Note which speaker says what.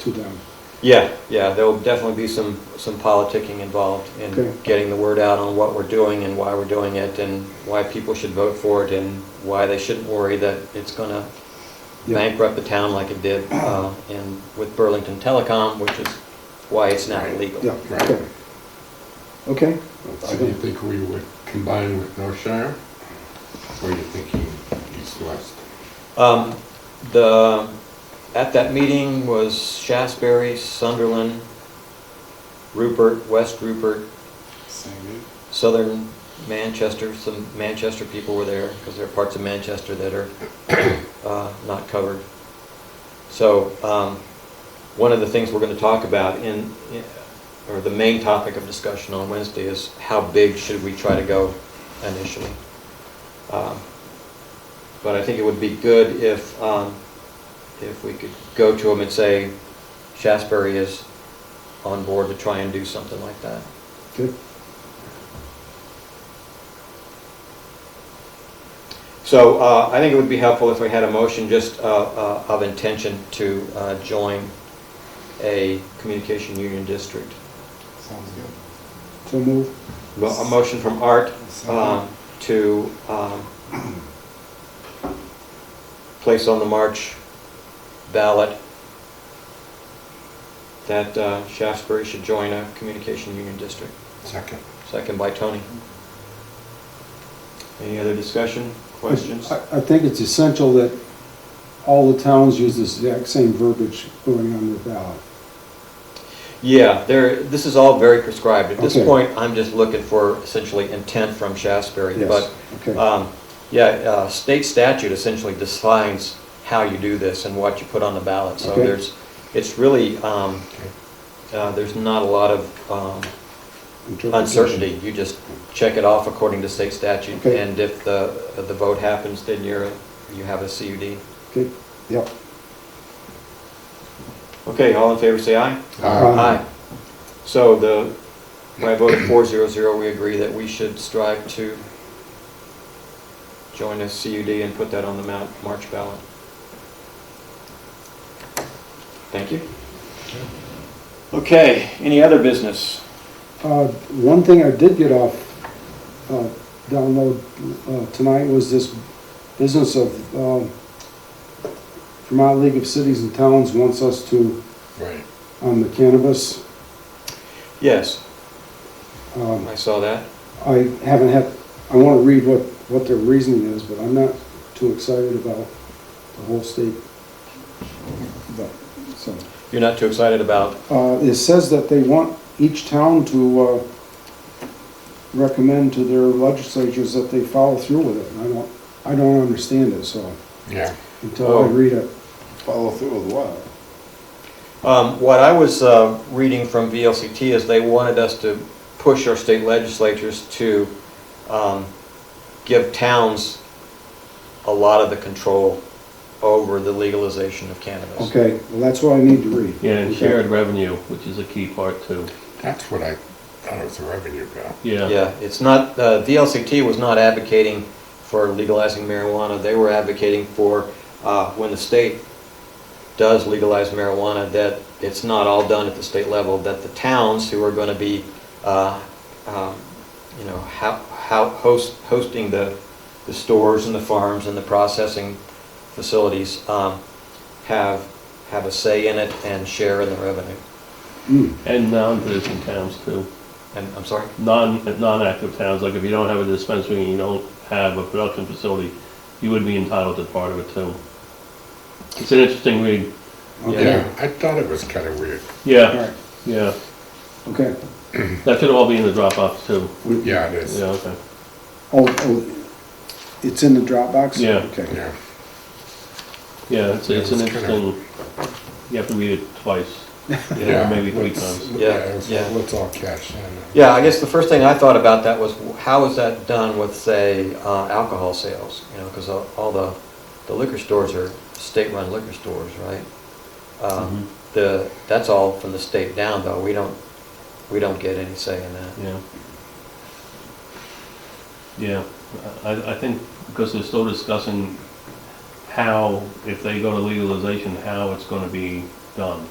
Speaker 1: to them.
Speaker 2: Yeah, yeah, there will definitely be some, some politicking involved
Speaker 1: Okay.
Speaker 2: in getting the word out on what we're doing and why we're doing it and why people should vote for it and why they shouldn't worry that it's gonna
Speaker 1: Yeah.
Speaker 2: bankrupt the town like it did, uh, and with Burlington Telecom, which is why it's not illegal.
Speaker 1: Yeah, okay. Okay,
Speaker 3: So do you think we would combine with Northshire? Or you think he- he's west?
Speaker 2: Um, The, at that meeting was Shasberry, Sunderland, Rupert, West Rupert, Southern Manchester, some Manchester people were there, because there are parts of Manchester that are uh, not covered. So, um, one of the things we're going to talk about in, in- or the main topic of discussion on Wednesday is how big should we try to go initially? Um, But I think it would be good if, um, if we could go to them and say, Shasberry is on board to try and do something like that.
Speaker 1: good.
Speaker 2: So uh, I think it would be helpful if we had a motion just uh, uh, of intention to uh, join a communication union district.
Speaker 4: Sounds good.
Speaker 1: So move.
Speaker 2: Mo- A motion from Art um, to um, place on the March ballot that uh, Shaftesbury should join a communication union district.
Speaker 3: Second.
Speaker 2: Second by Tony. Any other discussion, questions?
Speaker 1: I, I think it's essential that all the towns use this exact same verbiage going on their ballot.
Speaker 2: Yeah, there, this is all very prescribed. At this
Speaker 1: Okay.
Speaker 2: point, I'm just looking for essentially intent from Shasberry.
Speaker 1: Yes,
Speaker 2: But,
Speaker 1: okay,
Speaker 2: um, yeah, uh, state statute essentially defines how you do this and what you put on the ballot. So
Speaker 1: Okay.
Speaker 2: there's, it's really, um,
Speaker 3: Okay.
Speaker 2: uh, there's not a lot of um,
Speaker 1: Interpretation.
Speaker 2: uncertainty. You just check it off according to state statute.
Speaker 1: Okay.
Speaker 2: And if the, the vote happens, then you're, you have a CUD.
Speaker 1: Okay, yep.
Speaker 2: Okay, all in favor, say aye.
Speaker 3: Uh,
Speaker 1: Aye.
Speaker 2: Aye. So the, by a vote of four zero zero, we agree that we should strive to join a CUD and put that on the Mount March ballot. Thank you. Okay, any other business?
Speaker 1: Uh, One thing I did get off, uh, download uh, tonight was this business of um, Vermont League of Cities and Towns wants us to,
Speaker 3: Right.
Speaker 1: on the cannabis.
Speaker 2: Yes,
Speaker 1: um,
Speaker 2: I saw that.
Speaker 1: I haven't had, I want to read what, what their reasoning is, but I'm not too excited about the whole state. But, so,
Speaker 2: You're not too excited about,
Speaker 1: uh, It says that they want each town to uh, recommend to their legislatures that they follow through with it. And I don't, I don't understand it, so
Speaker 3: Yeah.
Speaker 1: until I
Speaker 2: Oh.
Speaker 1: read it.
Speaker 4: Follow through with what?
Speaker 2: um, what I was, uh, reading from VLCT is they wanted us to push our state legislatures to, um, give towns a lot of the control over the legalization of cannabis.
Speaker 1: Okay, well, that's what I need to read.
Speaker 5: Yeah, and
Speaker 1: Okay.
Speaker 5: shared revenue, which is a key part too.
Speaker 3: That's what I thought it was a revenue bill.
Speaker 5: Yeah.
Speaker 2: Yeah, it's not, uh, VLCT was not advocating for legalizing marijuana, they were advocating for, uh, when the state does legalize marijuana, that it's not all done at the state level, that the towns who are gonna be, uh, um, you know, how, how, host, hosting the, the stores and the farms and the processing facilities, um, have, have a say in it and share in the revenue.
Speaker 1: Mm,
Speaker 5: And non-producing towns too.
Speaker 2: And, I'm sorry?
Speaker 5: Non, non-active towns, like if you don't have a dispensary and you don't have a production facility, you would be entitled to part of it too. It's an interesting read.
Speaker 1: Okay,
Speaker 3: Yeah, I thought it was kind of weird.
Speaker 1: all right,
Speaker 5: Yeah, yeah.
Speaker 1: okay.
Speaker 5: That should all be in the drop-offs too.
Speaker 3: Yeah, it is.
Speaker 5: Yeah, okay.
Speaker 1: Oh, oh, it's in the Dropbox?
Speaker 5: Yeah.
Speaker 1: Okay,
Speaker 3: Yeah.
Speaker 5: Yeah, it's, it's an
Speaker 3: Yeah, it's kinda-
Speaker 5: interesting, you have to read it twice.
Speaker 3: Yeah,
Speaker 5: maybe three
Speaker 3: let's-
Speaker 5: times.
Speaker 2: Yeah,
Speaker 3: let's-
Speaker 2: yeah.
Speaker 3: Let's all cash in.
Speaker 2: Yeah, I guess the first thing I thought about that was, how is that done with, say, uh, alcohol sales? You know, because all the the liquor stores are state-run liquor stores, right? Um, The, that's all from the state down, though, we don't, we don't get any say in that.
Speaker 5: Yeah. Yeah, I, I think, because they're still discussing how, if they go to legalization, how it's gonna be done.